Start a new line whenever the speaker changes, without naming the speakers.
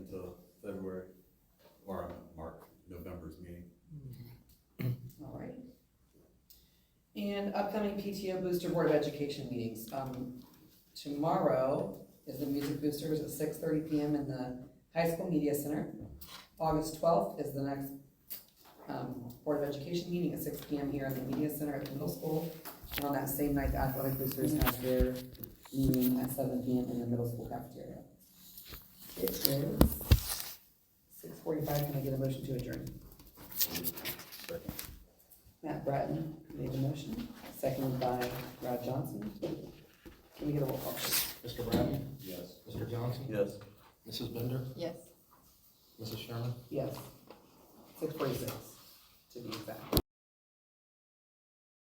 And upcoming PTO Booster Board of Education meetings. Um, tomorrow is the Music Boosters at six thirty PM in the High School Media Center. August twelfth is the next, um, Board of Education meeting at six PM here in the Media Center at the middle school. And on that same night, the Athletic Boosters have their meeting at seven PM in the middle school cafeteria. It is six forty-five. Can I get a motion to adjourn? Matt Bratton made the motion, seconded by Rod Johnson. Can we get a roll call? please?
Mr. Bratton?
Yes.
Mr. Johnson?
Yes.
Mrs. Bender?
Yes.
Mrs. Sherman?
Yes. Six forty-six, to be exact.